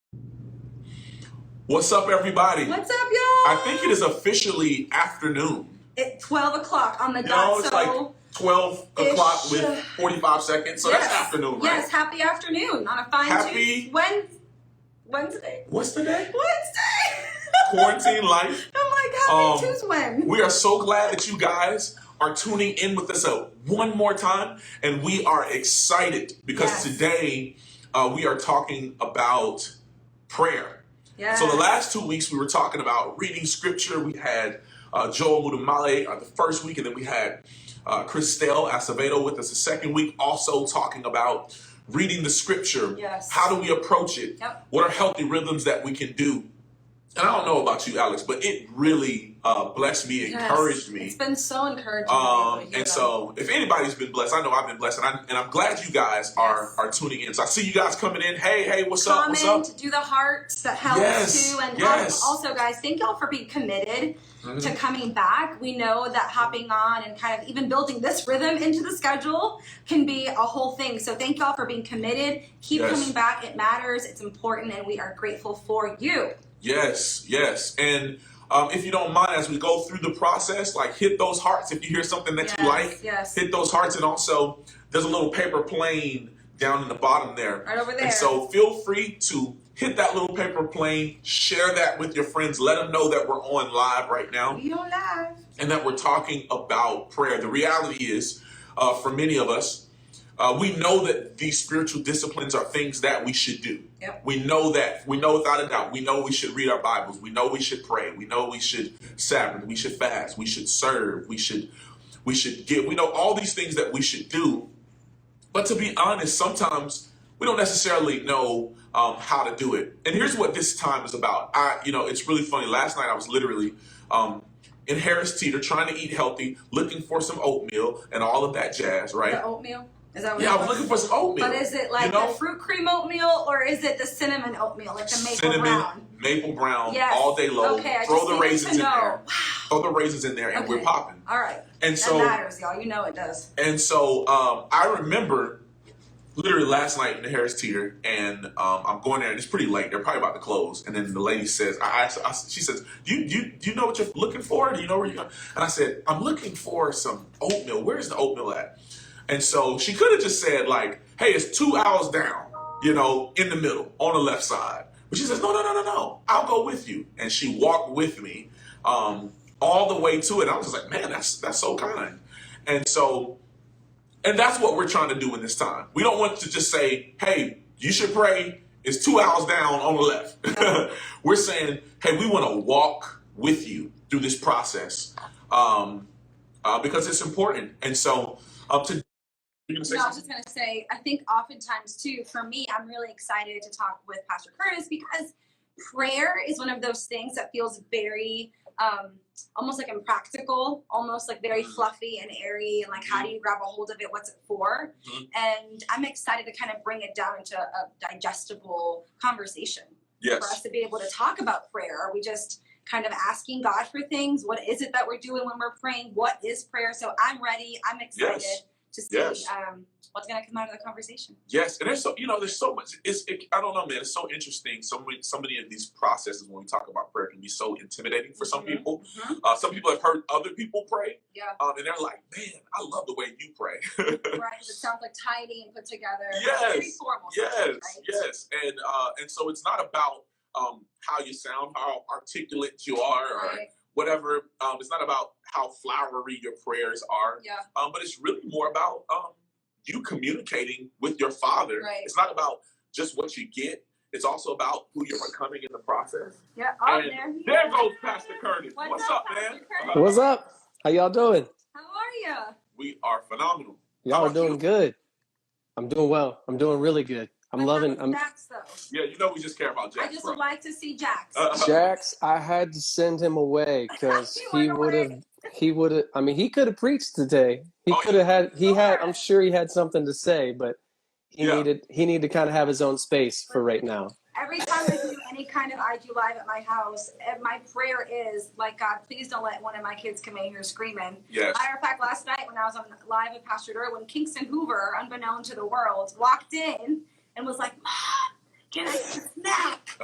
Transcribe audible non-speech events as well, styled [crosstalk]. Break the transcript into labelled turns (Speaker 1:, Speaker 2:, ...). Speaker 1: What's up, everybody?
Speaker 2: What's up,
Speaker 1: I think it
Speaker 2: y'all?
Speaker 1: is officially afternoon.
Speaker 2: At 12 o'clock on the
Speaker 1: You
Speaker 2: dot,
Speaker 1: know, it's like
Speaker 2: so
Speaker 1: 12 o'clock
Speaker 2: ish.
Speaker 1: with 45 seconds. So that's
Speaker 2: Yes,
Speaker 1: afternoon, right?
Speaker 2: yes, happy afternoon on a fine Tuesday.
Speaker 1: Happy,
Speaker 2: Wednesday. Wednesday.
Speaker 1: what's the day?
Speaker 2: Wednesday!
Speaker 1: Quarantine life.
Speaker 2: [laughs] I'm like, happy
Speaker 1: Um,
Speaker 2: Tuesday. when?
Speaker 1: we are so glad that you guys are tuning in with us uh, one more time. And we are excited because
Speaker 2: Yes,
Speaker 1: today uh, we are talking about prayer. So the
Speaker 2: yes,
Speaker 1: last two weeks we were talking about reading scripture. We had uh, Joel Mudumale uh, the first week, and then we had uh, Christelle Acevedo with us the second week, also talking about reading the scripture. How
Speaker 2: yes.
Speaker 1: do we approach it?
Speaker 2: Yep.
Speaker 1: What are healthy rhythms that we can do? And I don't know about you, Alex, but it really uh, blessed me,
Speaker 2: Yes.
Speaker 1: encouraged
Speaker 2: It's
Speaker 1: me.
Speaker 2: been so encouraging to be able to
Speaker 1: Um,
Speaker 2: hear
Speaker 1: and
Speaker 2: them.
Speaker 1: so, if anybody's been blessed, I know I've been blessed, and, I, and I'm glad you guys are
Speaker 2: Yes.
Speaker 1: are tuning in. So I see you guys coming in. Hey, hey, what's up? What's up?
Speaker 2: comment, do the hearts, that helps too.
Speaker 1: Yes,
Speaker 2: And um,
Speaker 1: yes.
Speaker 2: also, guys, thank y'all for being committed to
Speaker 1: Mhm.
Speaker 2: coming back. We know that hopping on and kind of even building this rhythm into the schedule can be a whole thing. So, thank y'all for being committed. Keep coming
Speaker 1: Yes,
Speaker 2: back. It matters, it's important, and we are grateful for you.
Speaker 1: yes, yes. And um, if you don't mind, as we go through the process, like hit those hearts. If you hear something that you
Speaker 2: Yes,
Speaker 1: like,
Speaker 2: yes.
Speaker 1: hit those hearts. And also, there's a little paper plane down in the bottom there.
Speaker 2: Right over
Speaker 1: And
Speaker 2: there.
Speaker 1: so feel free to hit that little paper plane, share that with your friends, let them know that we're on live right now
Speaker 2: We don't laugh.
Speaker 1: and that we're talking about prayer. The reality is, uh, for many of us, uh, we know that these spiritual disciplines are things that we should do.
Speaker 2: Yep.
Speaker 1: We know that. We know without a doubt. We know we should read our Bibles. We know we should pray. We know we should Sabbath. We should fast. We should serve. We should we should give. We know all these things that we should do. But to be honest, sometimes we don't necessarily know um, how to do it. And here's what this time is about. I, you know, it's really funny. Last night I was literally um, in Harris Teeter trying to eat healthy, looking for some oatmeal and all of that jazz, right?
Speaker 2: The oatmeal. Is that what
Speaker 1: Yeah,
Speaker 2: it
Speaker 1: I was
Speaker 2: was?
Speaker 1: looking for some
Speaker 2: But
Speaker 1: oatmeal.
Speaker 2: is it
Speaker 1: You
Speaker 2: like the
Speaker 1: know,
Speaker 2: fruit cream oatmeal or is it the cinnamon oatmeal, like the maple
Speaker 1: cinnamon,
Speaker 2: brown?
Speaker 1: maple brown, all
Speaker 2: Yes.
Speaker 1: day long.
Speaker 2: Okay, I
Speaker 1: Throw
Speaker 2: just
Speaker 1: the
Speaker 2: needed to
Speaker 1: raisins in there.
Speaker 2: know.
Speaker 1: Throw the raisins in there, and we're
Speaker 2: Okay.
Speaker 1: popping.
Speaker 2: All right.
Speaker 1: And
Speaker 2: That
Speaker 1: so,
Speaker 2: matters, y'all. You know it does.
Speaker 1: and so, um, I remember literally last night in the Harris Theater, and um, I'm going there, and it's pretty late. They're probably about to close. And then the lady says, I, I, I she says, do you, do you, do you know what you're looking for? Do you know where you're going? And I said, I'm looking for some oatmeal. Where's the oatmeal at? And so she could have just said, like, hey, it's two hours down, you know, in the middle, on the left side. But she says, no, no, no, no, no, I'll go with you. And she walked with me um, all the way to it. I was just like, man, that's that's so kind. And so, and that's what we're trying to do in this time. We don't want to just say, hey, you should pray. It's two hours down on the
Speaker 2: Yep.
Speaker 1: left. [laughs] we're saying, hey, we want to walk with you through this process um, uh, because it's important. And so, up to you're gonna say
Speaker 2: No, I was
Speaker 1: something?
Speaker 2: just gonna say, I think oftentimes too, for me, I'm really excited to talk with Pastor Curtis because prayer is one of those things that feels very um almost like impractical, almost like very
Speaker 1: Mm,
Speaker 2: fluffy and airy and like how do you grab a hold of it? What's it for?
Speaker 1: mhm.
Speaker 2: And I'm excited to kind of bring it down into a digestible conversation for us
Speaker 1: Yes.
Speaker 2: to be able to talk about prayer. Are we just kind of asking God for things? What is it that we're doing when we're praying? What is prayer? So I'm ready. I'm excited
Speaker 1: Yes.
Speaker 2: to see
Speaker 1: Yes.
Speaker 2: um, what's going to come out of the conversation.
Speaker 1: Yes. And there's so you know there's so much. It's it, I don't know, man. It's so interesting. So many so many of these processes when we talk about prayer can be so intimidating for some
Speaker 2: Mm-hmm.
Speaker 1: people.
Speaker 2: Mm-hmm.
Speaker 1: Uh, some people have heard other people pray, [laughs]
Speaker 2: Yeah.
Speaker 1: um, and they're like, "Man, I love the way you pray."
Speaker 2: Right. Because it sounds like tidy and put together, but pretty
Speaker 1: Yes,
Speaker 2: formal sometimes,
Speaker 1: yes,
Speaker 2: right?
Speaker 1: yes, and uh, and so it's not about um, how you sound, how articulate you are, or
Speaker 2: Right.
Speaker 1: whatever. Um, it's not about how flowery your prayers are,
Speaker 2: Yeah.
Speaker 1: um, but it's really more about um, you communicating with your Father.
Speaker 2: Right.
Speaker 1: It's not about just what you get. It's also about who you're becoming in the process.
Speaker 2: Yeah. Oh,
Speaker 1: And
Speaker 2: there he
Speaker 1: there
Speaker 2: is.
Speaker 1: goes Pastor Curtis.
Speaker 2: What's
Speaker 1: What's
Speaker 2: up,
Speaker 1: up, man?
Speaker 2: Pastor
Speaker 1: Uh,
Speaker 2: Curtis?
Speaker 3: What's up? How y'all doing?
Speaker 2: How are you?
Speaker 1: we are phenomenal. How
Speaker 3: Y'all are
Speaker 1: about
Speaker 3: doing
Speaker 1: you?
Speaker 3: good. I'm doing well. I'm doing really good. I'm
Speaker 2: What's up
Speaker 3: loving.
Speaker 2: with
Speaker 3: I'm
Speaker 2: Jax though?
Speaker 1: Yeah, you know we just care about
Speaker 2: I
Speaker 1: Jack's,
Speaker 2: just
Speaker 1: bro.
Speaker 2: would like to see Jax.
Speaker 1: Uh,
Speaker 3: Jax. I had to send him away because
Speaker 2: he
Speaker 3: he
Speaker 2: went
Speaker 3: would have.
Speaker 2: away.
Speaker 3: He would have. I mean, he could have preached today. He
Speaker 1: oh
Speaker 3: could have had. He had. I'm
Speaker 2: Lord.
Speaker 3: sure he had something to say, but he
Speaker 1: yeah,
Speaker 3: needed. He needed to kind of have his own space for
Speaker 2: Listen,
Speaker 3: right now.
Speaker 2: every time I do any kind of IG live at my house, eh, my prayer is like, God, please don't let one of my kids come in here screaming.
Speaker 1: yes.
Speaker 2: Matter of fact, last night when I was on live with Pastor Derwin, Kingston Hoover, unbeknown to the world, walked in and was like, Mom, can I get a snack?